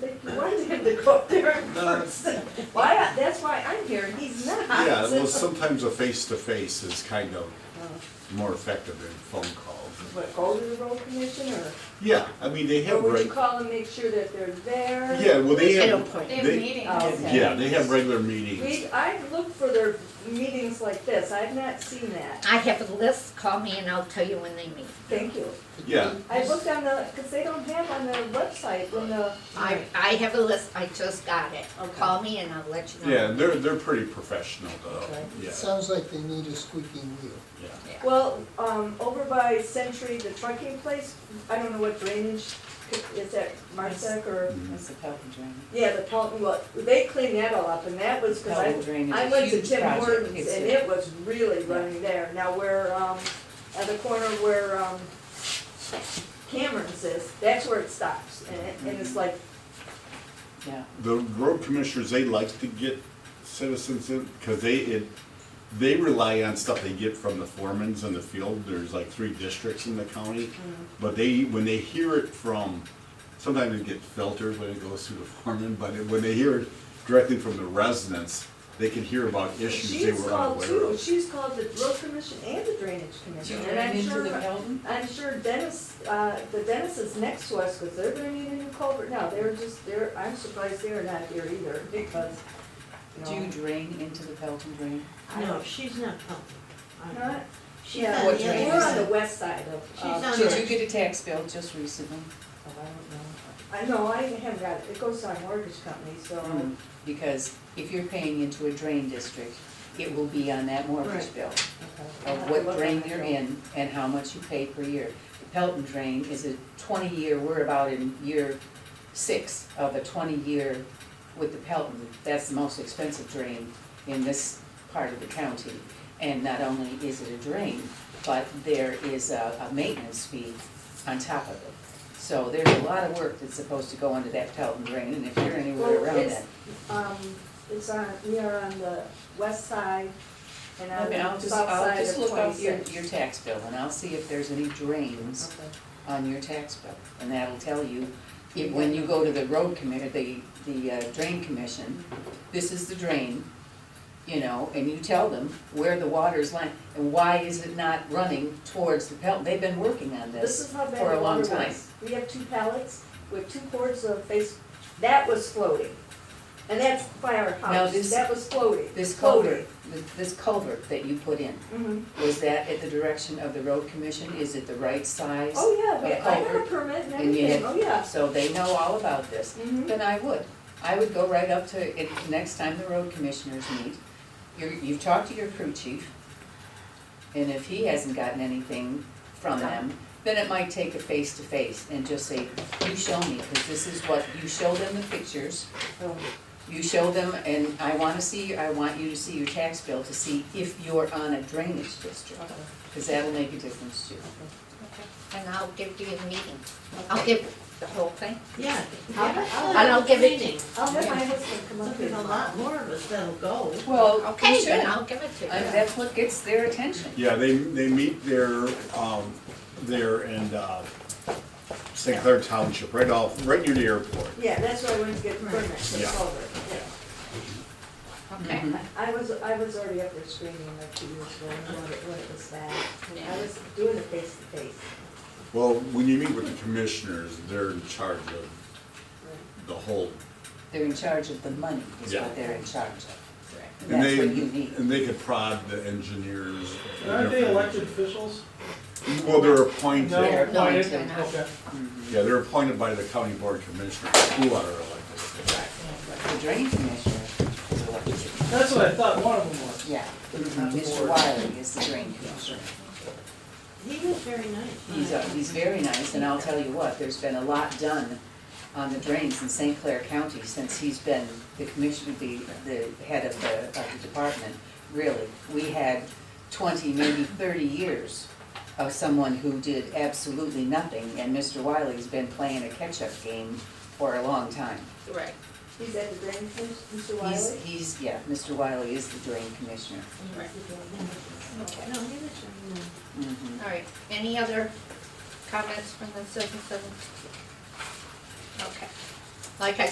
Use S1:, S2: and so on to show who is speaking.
S1: They wanted him to go up there in
S2: No.
S1: person. Why, I- that's why I'm here, and he's not.
S2: Uh, Yeah, well, sometimes a face-to-face is kind of more effective than phone calls.
S1: But go to the road commission, or,
S2: Yeah, I mean, they
S1: or
S2: have,
S1: would you
S2: reg-
S1: call and make sure that they're there?
S2: yeah, well, they
S3: An
S2: have,
S3: appointment.
S4: They have
S2: They-
S4: meetings.
S1: Oh, okay.
S2: yeah, they have regular
S1: We,
S2: meetings.
S1: I've looked for their meetings like this, I've not seen that,
S3: I have a list, call me and I'll tell you when they meet.
S1: thank you.
S2: Yeah,
S1: I looked on the, because they don't have on their website when the.
S3: I, I have a list, I just got it.
S1: Okay.
S3: Call me and I'll let you know.
S2: yeah, they're, they're pretty professional though,
S1: Okay.
S2: yeah,
S5: Sounds like they need a squeaking wheel.
S2: yeah.
S1: Well, um, over by Century, the trucking place, I don't know what drainage, is that Marsec or?
S2: Mhm.
S6: That's the Pelton drain.
S1: Yeah, the Pelton, well, they cleaned that all up, and that was, because
S6: Pelton drain
S1: I,
S6: is
S1: I
S6: a
S1: went to
S6: huge
S1: Tim
S6: project.
S1: Hortons,
S6: It's
S1: and
S6: a-
S1: it was really running there. Now where, um, at the corner where, um, Cameron's is, that's where it stops, and it, and it's like,
S6: Yeah.
S2: The road commissioners, they like to get citizens in, because they, it, they rely on stuff they get from the foremans in the field. There's like three districts in the county.
S1: Mm-hmm.
S2: But they, when they hear it from, sometimes it gets filtered when it goes through the foreman, but it- when they hear it directly from the residents, they can hear about issues they
S1: she's
S2: were
S1: called
S2: unaware
S1: too,
S2: of.
S1: she's called the road commission and the drainage commission, and
S6: Right
S1: I'm
S6: into
S1: sure.
S6: the Pelton?
S1: I'm sure Dennis, uh, the Dennis is next to us, because they're gonna need a new culvert now, they're just, they're, I'm surprised they're not here either, because, you know.
S6: Do you drain into the Pelton drain?
S1: I
S7: No,
S1: don't-
S7: she's not coming.
S1: Not,
S7: She's
S1: yeah,
S7: on
S6: What
S7: the
S1: we're
S7: other
S6: drainage?
S1: on the
S7: side.
S1: west side of.
S7: She's
S1: of-
S7: on-
S6: Did you get a tax bill just recently?
S1: Oh, I don't know. I know, I haven't got it, it goes to our mortgage company, so,
S6: Hmm. Because if you're paying into a drain district, it will be on that mortgage
S7: Right.
S6: bill
S1: okay.
S6: of what drain you're in and how much you pay per year. The Pelton drain is a twenty-year, we're about in year six of a twenty-year with the Pelton. That's the most expensive drain in this part of the county. And not only is it a drain, but there is a, a maintenance fee on top of it. So there's a lot of work that's supposed to go into that Pelton drain, and if you're anywhere
S1: Well,
S6: around
S1: it's-
S6: that.
S1: Um, it's on, we are on the west side and
S6: I
S1: on
S6: mean, I'll
S1: the
S6: just,
S1: south
S6: I'll
S1: side of
S6: just look up your,
S1: twenty-six.
S6: your tax bill and I'll see if there's any drains
S1: Okay.
S6: on your tax bill. And that'll tell you, if, when you go to the road commi, the, the uh, drain commission, this is the drain, you know, and you tell them where the water's lying and why is it not running towards the Pelton? They've been working on
S1: This
S6: this
S1: is how bad
S6: for
S1: the
S6: a long
S1: water
S6: time.
S1: was. We have two pallets with two cords of face, that was floating. And that's by our
S6: Now
S1: house,
S6: this-
S1: that was floating.
S6: This
S1: floating.
S6: culvert, th- this culvert that you put in,
S1: Mhm.
S6: was that at the direction of the road commission? Is it the right size?
S1: Oh, yeah, we-
S6: A
S1: I got a
S6: culvert.
S1: permit and
S6: And you
S1: everything, oh,
S6: had-
S1: yeah.
S6: So they know all about this.
S1: Mhm.
S6: then I would. I would go right up to, it, next time the road commissioners meet, you're, you've talked to your crew chief, and if he hasn't gotten anything from them, then it might take a face-to-face and just say, you show me, because this is what, you show them the pictures,
S1: Oh,
S6: you show them, and I wanna see, I want you to see your tax bill to see if you're on a drainage district,
S1: okay.
S6: because that'll make a difference too.
S3: And I'll give you a meeting. I'll give the whole thing.
S7: Yeah.
S1: I'll-
S3: And I'll give it to you.
S7: Meeting.
S1: I'll let my husband come up
S7: Look,
S1: here.
S7: there's a lot more of us that'll go.
S6: Well,
S3: Okay, then I'll give it to you.
S6: That's what gets their attention.
S2: Yeah, they, they meet there, um, there in, uh, St. Clair Township, right off, right near the airport.
S1: Yeah, that's why I went to get permit for the
S2: Yeah.
S1: culvert. yeah.
S3: Okay.
S1: I was, I was already up there screaming like two years ago, and what it, what it was that. I was doing it face to face.
S2: Well, when you meet with the commissioners, they're in charge of the whole
S6: They're in charge of the money, is
S2: Yeah.
S6: what they're in charge of.
S2: And
S6: That's
S2: they,
S6: what you need.
S2: and they could prod the engineers.
S8: Aren't they elected officials?
S2: Well, they're appointed,
S8: No,
S2: yeah,
S6: They're
S8: appointed,
S6: appointed.
S8: okay.
S2: they're appointed by the county board commissioners, who are elected.
S6: The drain commissioner is elected,
S8: That's what I thought one of them was.
S6: yeah. Mr. Wiley is the drain commissioner.
S7: He was very nice.
S6: He's, uh, he's very nice, and I'll tell you what, there's been a lot done on the drains in St. Clair County since he's been the commissioner, the, the head of the, of the department, really. We had twenty, maybe thirty years of someone who did absolutely nothing, and Mr. Wiley's been playing a catch-up game for a long time.
S3: Right.
S1: He's at the drain, Mr. Wiley?
S6: He's, he's, yeah, Mr. Wiley is the drain commissioner.
S3: Right. Okay.
S7: No, he was very nice.
S6: Mhm.
S3: All right. Any other comments from the citizens? Okay. Like I